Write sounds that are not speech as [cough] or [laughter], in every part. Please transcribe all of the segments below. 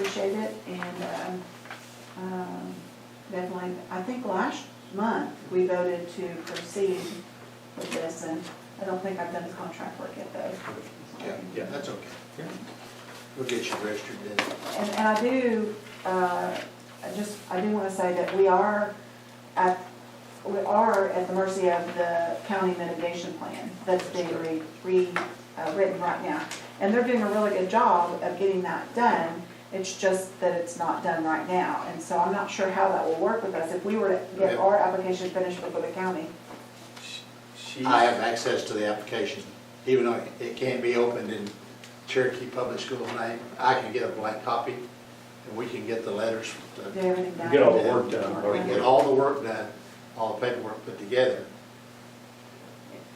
appreciate it, and, um, um, definitely, I think last month, we voted to proceed with this, and I don't think I've done the contract work yet, though. Yeah, that's okay. We'll get you registered then. And, and I do, uh, I just, I do wanna say that we are at, we are at the mercy of the county mitigation plan that's being re, re, uh, written right now. And they're doing a really good job of getting that done, it's just that it's not done right now. And so I'm not sure how that will work with us, if we were to get our application finished before the county. She, I have access to the application, even though it can't be opened in Cherokee Public School name. I can get a blank copy, and we can get the letters. from Do everything down. Get all the work done. We can get all the work done, all the paperwork put together,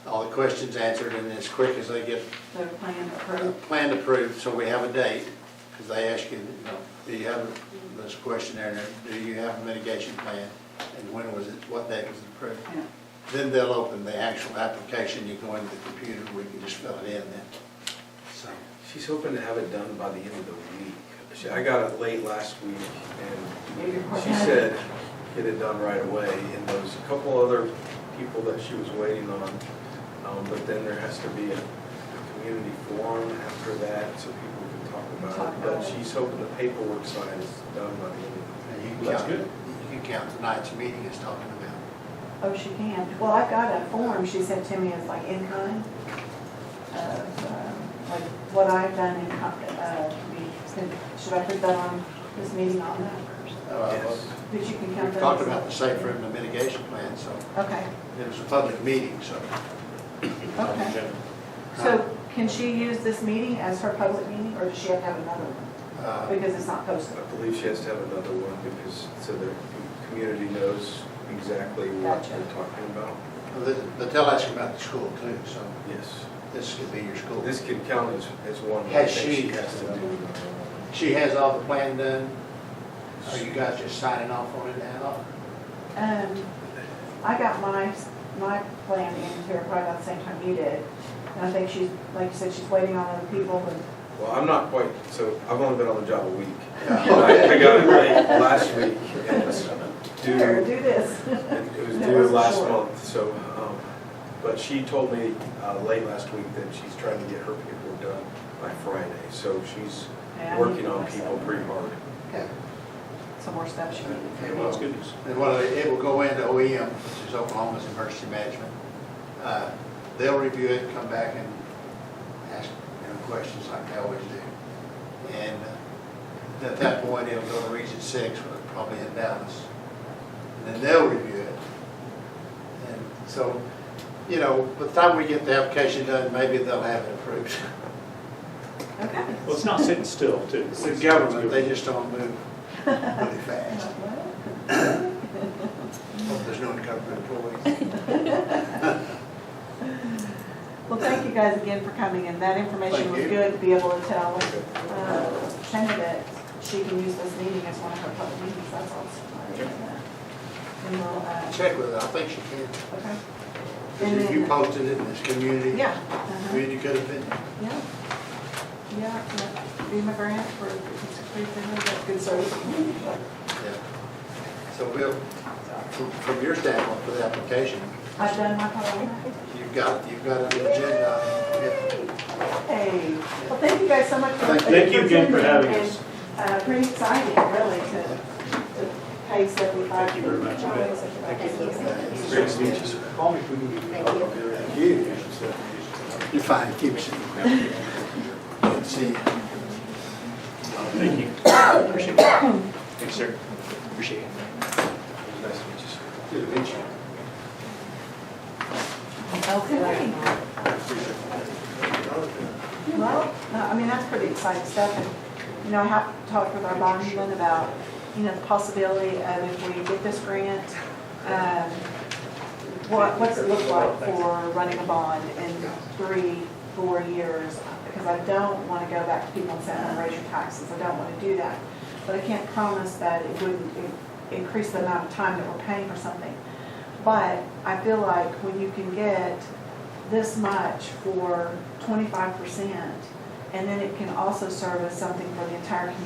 all the questions answered, and as quick as they get The plan a approved. plan approved, so we have a date, because they ask you, you know, do you have this questionnaire, do you have a mitigation plan, and when was it, what date was it approved? Yeah. Then they'll open the actual application, you go into the computer, we can just fill it in then. So, she's hoping to have it done by the end of the week. She, I got it late last week Maybe we're and she said, get it done right away. And there was a couple other people that she was waiting on. Um, but then there has to be a a community forum after that so people can talk about Talk it. about But it. she's hoping the paperwork side is done by the end of the week. and you can That's count, good. you can count tonight's meeting as talking about. Oh, she can. Well, I've got a form she sent to me, it's like in kind, of, uh, like what I've done in, co- uh, to be- should I put that on this meeting on that? Oh, Uh, Yes. But you can count We've that. talked as- about the safe room and mitigation plan, so Okay, it was a public meeting, so. okay. So can she use this meeting as her public meeting, or does she have to have another one? uh, Because it's not posted. I believe she has to have another one because, so the community knows exactly what Gotcha. we're talking about. But but they'll ask about the school too, so Yes. this could be your school. This can count as, as one. I Has think she- has to do. She has all the plan done? Are you guys just signing off on it now? Um, I got my, my plan in here probably about the same time you did. And I think she's, like you said, she's waiting on other people, but Well, I'm not quite, so I've only been on the job a [laughs] week. Yeah. [laughs] I I got it late last week and it's here, due, do this. it was That due wasn't last short. month, so, um, but she told me, uh, late last week that she's trying to get her paperwork done by Friday, so she's Yeah, I need working to on fix people that. pretty hard. Okay. Some more stuff she needed. It will. And what, it it will go into OEM, which is Oklahoma's Emergency Management. Uh, They'll review it, come back and ask, you know, questions like they always do. And uh, at that point, it'll go to Region Six, which is probably in Dallas. And then they'll review it. And so, you know, by the time we get the application done, maybe they'll have it approved. Okay. Well, it's not sitting still, too. The government, they just don't move [laughs] really fast. Hope there's no government employees. Well, thank you guys again for coming, and that information Thank was you. good to be able to tell uh, Shanda that she can use this meeting as one of her public meetings, that's all. And we'll, uh, Check with her, I think she can. okay. And If you then- posted it in this community, Yeah. uh-huh, community could have been, Yeah. Yeah, yeah, FEMA grant for, it's a free thing, that's good service. yeah. So Bill, from- from your standpoint for the application, I've done my part. you've got, you've got an agenda. Hey, well, thank you guys so much for. Thank you again for having us. And, uh, Pretty exciting, really, to, to pay seventy-five. Thank you very much. Yeah. Great to meet you, sir. Call me if we need Thank you. You're fine, keep it simple. Good to See, you. Thank you. Appreciate it. Thanks, sir. Appreciate it. Nice to meet you, sir. good to meet you. Okay. Well, no, I mean, that's pretty exciting stuff. And You know, I have talked with our bondsman about, you know, the possibility of if we get this grant, um, what, what's it look like for running a bond in three, four years? Because I don't want to go back to people and say, I'm going to raise your taxes. I don't want to do that. But I can't promise that it wouldn't in- increase the amount of time that we're paying for something. But I feel like when you can get this much for twenty-five percent, and then it can also serve as something for the entire community.